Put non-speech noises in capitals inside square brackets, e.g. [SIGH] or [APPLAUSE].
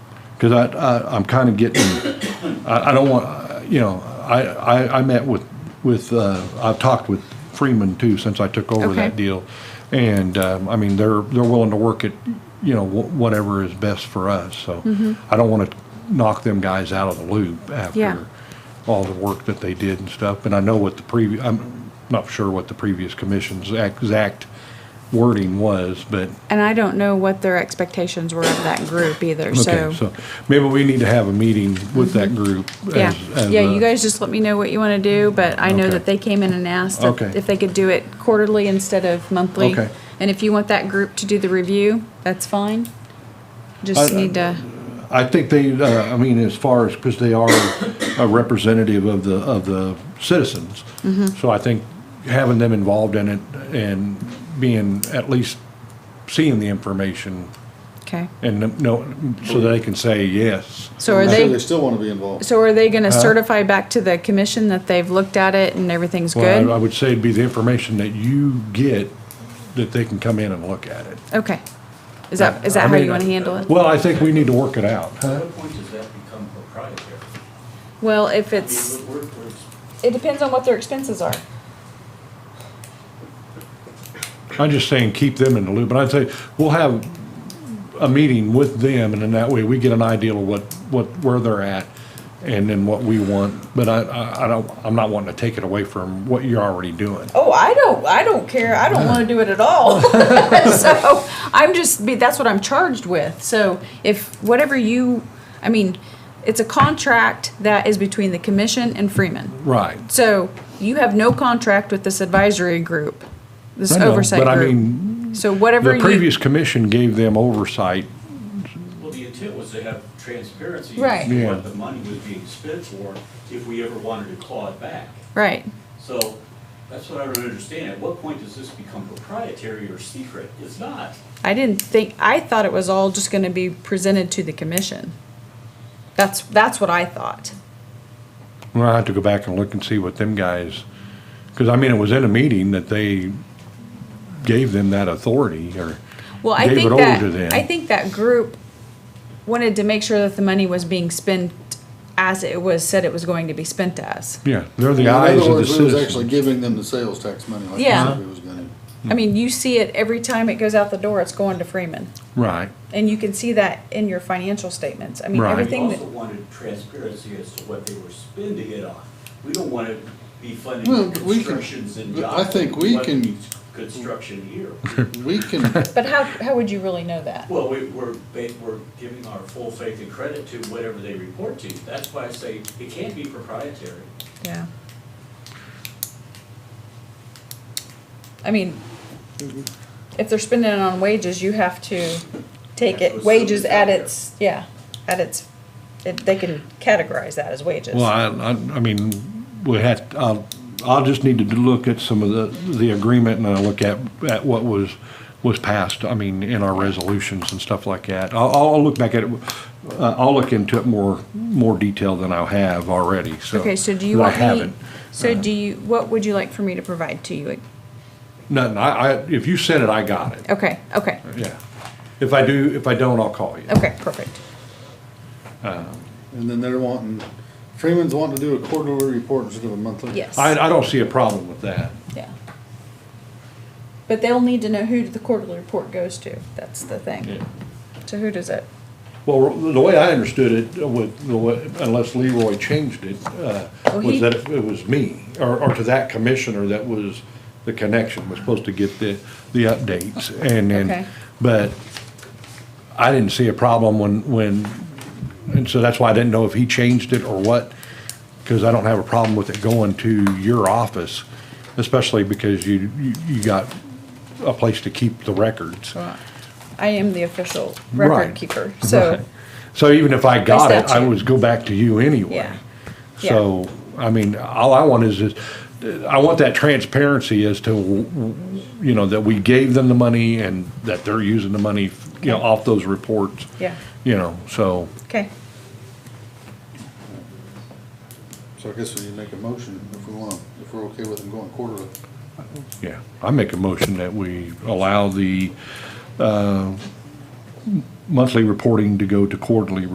Because I, I, I'm kind of getting, I, I don't want, you know, I, I, I met with, with, uh, I've talked with Freeman too since I took over that Okay. deal. And, um, I mean, they're, they're willing to work at, you know, wh- whatever is best for us, so. Mm-hmm. I don't want to knock them guys out of the loop Yeah. after all the work that they did and stuff. And I know what the previous, I'm not sure what the previous commission's exact wording was, but And I don't know what their expectations were of that group either, Okay, so uh, maybe we need to have a meeting with that group. Mm-hmm. Yeah, as- as uh, yeah, a- you guys just let me know what you want to do, but I know Okay. that they came in and asked Okay. if if they could do it quarterly instead of monthly. Okay. And if you want that group to do the review, that's fine. Just I- I- need to, I think they, uh, I mean, as far as, because they are a representative of the, of the citizens. Mm-hmm. So I think having them involved in it and being, at least seeing the information okay. and know, so they can say yes. So are I'm sure they they, still want to be involved. so are they going Uh-huh. to certify back to the commission that they've looked at it and everything's Well, I- I good? would say it'd be the information that you get, that they can come in and look at it. Okay. Is that, is that I how mean, you want to handle it? Well, I think we need to work it out, huh? At what point does that become proprietary? Well, if I mean, it's, we're- we're- we're- it depends on what their expenses are. I'm just saying, keep them in the loop, and I'd say, we'll have a meeting with them, and in that way, we get an idea of what, what, where they're at, and then what we want, but I, I, I don't, I'm not wanting to take it away from what you're already doing. Oh, I don't, I don't care. I don't want to do it at [LAUGHS] all. [LAUGHS] so I'm just, be- that's what I'm charged with. So if whatever you, I mean, it's a contract that is between the commission and Freeman. Right. So you have no contract with this advisory group, this I know, oversight but I group. mean, So whatever The you, previous commission gave them oversight, Well, the intent was to have transparency. Right. as to Yeah. What the money was being spent for, if we ever wanted to claw it back. right. So that's what I don't understand. At what point does this become proprietary or secret? It's not. I didn't think, I thought it was all just going to be presented to the commission. That's, that's what I thought. well, I have to go back and look and see what them guys, because I mean, it was in a meeting that they gave them that authority, or Well, I gave think it over to them. that, I think that group wanted to make sure that the money was being spent as it was said it was going to be spent as. Yeah, they're In the other eyes of the words, we was actually citizens. giving them the sales tax money like we Yeah. said we was gonna. I mean, you see it every time it goes out the door, it's going to Freeman. Right, And you can see that in your financial statements. I mean, Right. We everything that, also wanted transparency as to what they were spending it on. We don't want to be Well, funding we can- constructions and but I jobs. think we We want can- to be Construction here. We can, but how, how would you really know that? Well, we, we're, ba- we're giving our full faith and credit to whatever they report to. That's why I say it can't be proprietary. Yeah. I mean, if they're spending it on wages, you have to take That's it, what wages at somebody's out its, yeah, at its, it- they can categorize that as wages. well, I, I, I mean, we had, I'll, I'll just need to look at some of the, the agreement and I'll look at, at what was, was passed, I mean, in our resolutions and stuff like that. I'll, I'll look back at it, uh, I'll look into it more, more detail than I have already, so. Okay, so do you that want I me, haven't. Uh-huh. so do you, what would you like for me to provide to you? Nothing, I, I, if you sent it, I got it, Okay, okay, yeah. If I do, if I don't, I'll call you. okay, perfect. and then they're wanting, Freeman's wanting to do a quarterly report instead of a monthly. Yes, I, I don't see a problem with that. yeah. But they'll need to know who the quarterly report goes to, that's the thing. Yeah. So who does it? Well, the way I understood it, uh, with, the way- unless Leroy changed it, uh, Well, Oh, he- was that it was me, or, or to that commissioner that was, the connection was supposed to get the, the updates, and Okay. then, but I didn't see a problem when, when, and so that's why I didn't know if he changed it or what, because I don't have a problem with it going to your office, especially because you, you, you got a place to keep the records. I am the official record Right. keeper, so, Right. So even if I got it, I statute. would go back to you anyway. Yeah. So, I mean, all I want is, is, I want that transparency as to, you know, that we gave them the money and that they're using the money, you know, off those reports. Yeah. You know, so, okay. So I guess we need to make a motion if we want, if we're okay with them going quarterly. yeah, I make a motion that we allow the, uh, monthly reporting to go to quarterly